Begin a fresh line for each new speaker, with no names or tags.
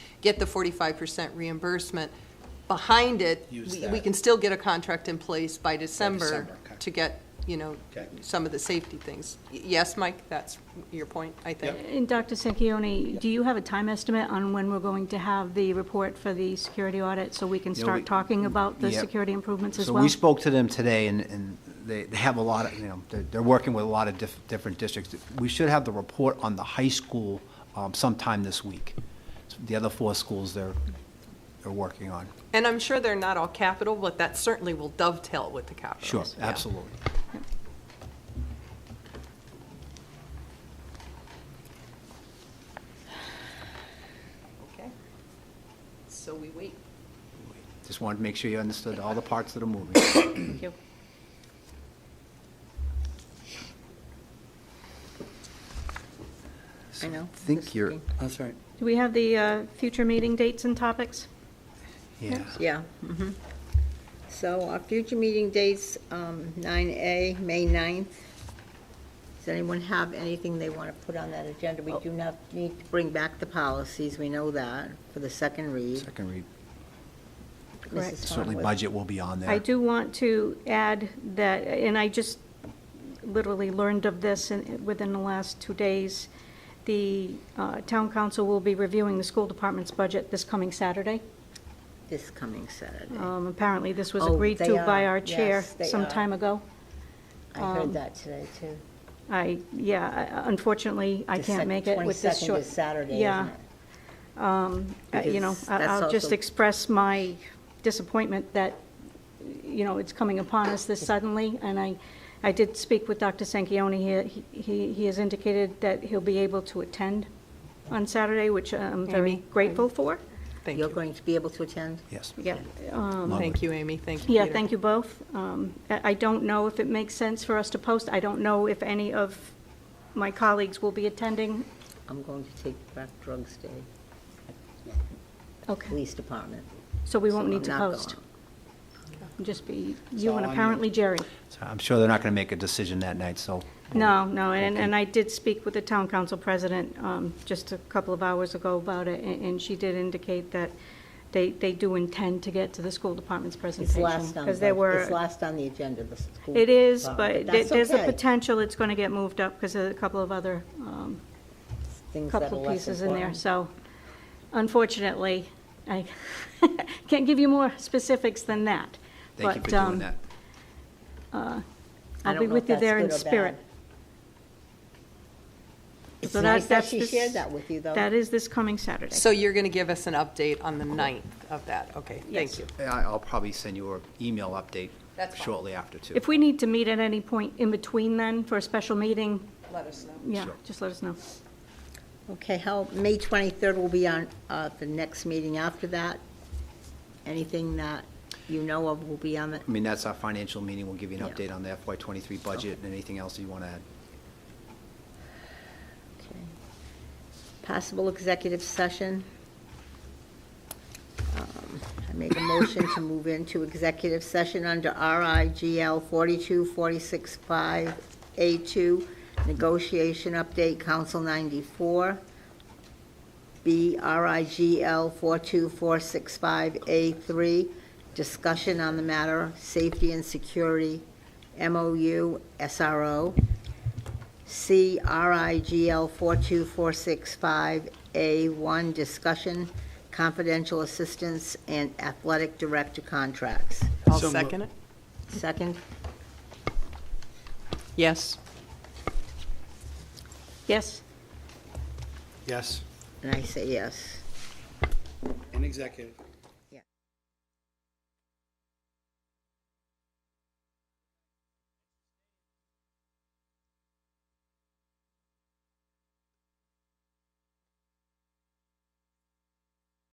get the forty-five percent reimbursement. Behind it,
Use
we,
that.
we can still get a contract in place by December
December, okay.
to get, you know,
Okay.
some of the safety things. Y- Yes, Mike, that's your point, I think.
And Dr. Sanquioni, do you have a time estimate on when we're going to have the report for the security audit, so we can
Yeah, we-
start talking about the
yeah.
security improvements as
So
well?
we spoke to them today, and, and they, they have a lot of, you know, they're, they're working with a lot of diff, different districts. We should have the report on the high school, um, sometime this week. The other four schools they're, they're working on.
And I'm sure they're not all capital, but that certainly will dovetail with the capital.
Sure,
Yeah.
absolutely.
Okay. So we wait.
Just wanted to make sure you understood all the parts that are moving.
Thank you.
I know.
I think you're,
I'm sorry.
Do we have the uh, future meeting dates and topics?
yeah.
Yeah. mhm. So our future meeting dates, um, 9A, May 9th. Does anyone have anything they want to put on that agenda? We do not need to bring back the policies, we know that, for the second read.
Second read,
Mrs.
Correct.
certainly
Farnworth.
budget will be on there.
I do want to add that, and I just literally learned of this in- within the last two days, the uh, town council will be reviewing the school department's budget this coming Saturday.
This coming Saturday.
Um, Apparently, this was
Mm. Oh,
agreed
they
to by
are.
our chair
Yes, they
some
are.
time ago.
I
um,
heard that today, too.
I, yeah, I- unfortunately, I
The
can't
sec-
make it with this short.
22nd is Saturday,
Yeah.
isn't it?
Uh, You know,
Because
I-
that's
I'll just
also-
express my disappointment that, you know, it's coming upon us this suddenly, and I, I did speak with Dr. Sanquioni, He- he, he has indicated that he'll be able to attend on Saturday, which uh, I'm very
Amy,
grateful for.
Thank
You're
you.
going to be able to attend?
Yes.
Yeah,
Thank you, Amy, thank you.
yeah,
Peter.
thank you both. Um, I I don't know if it makes sense for us to post, I don't know if any of my colleagues will be attending.
I'm going to take back drugs day,
Okay,
police department.
so we won't
So
need
I'm
to
not going.
post. Just be you and apparently Jerry.
So I'm sure they're not going to make a decision that night, so.
No, no, and, and I did speak with the town council president um, just a couple of hours ago about it, and and she did indicate that they, they do intend to get to the school department's
It's
presentation.
last on,
Because there
the- it's
were,
last on the agenda, the school.
it is,
department,
but there-
that's
there's a
okay.
potential it's going to get moved up because of a couple of other, um,
Things that are
couple of
less
pieces in there.
important.
So unfortunately, I can't give you more specifics than that.
Thank you for
But,
doing
um,
that.
I
I'll
don't
be
know
with
if
you
that's
there in
good or
spirit.
bad. It's
So
nice that
that's
she
this-
shared that with you, though.
That is this coming Saturday.
So you're going to give us an update on the 9th of that? Okay, thank
Yes.
you.
I- I'll probably send you an email update
That's fine.
shortly after, too.
If we need to meet at any point in between then for a special meeting,
Let us know.
yeah,
Sure.
just let us know.
Okay, how, May 23rd will be on, uh, the next meeting after that. Anything that you know of will be on it.
I mean, that's our financial meeting, we'll give you an
Yeah.
update on the FY twenty-three budget and anything else you want to add.
Okay. Possible executive session. Um, I make a motion to move into executive session under RIGL 42465A2, negotiation update, Council 94, B RIGL 42465A3, discussion on the matter, safety and security, MOU, SRO, C R I G L 42465A1, discussion, confidential assistance, and athletic director contracts.
I'll second it.
Second,
Yes.
Yes,
Yes,
and I say yes.
in executive.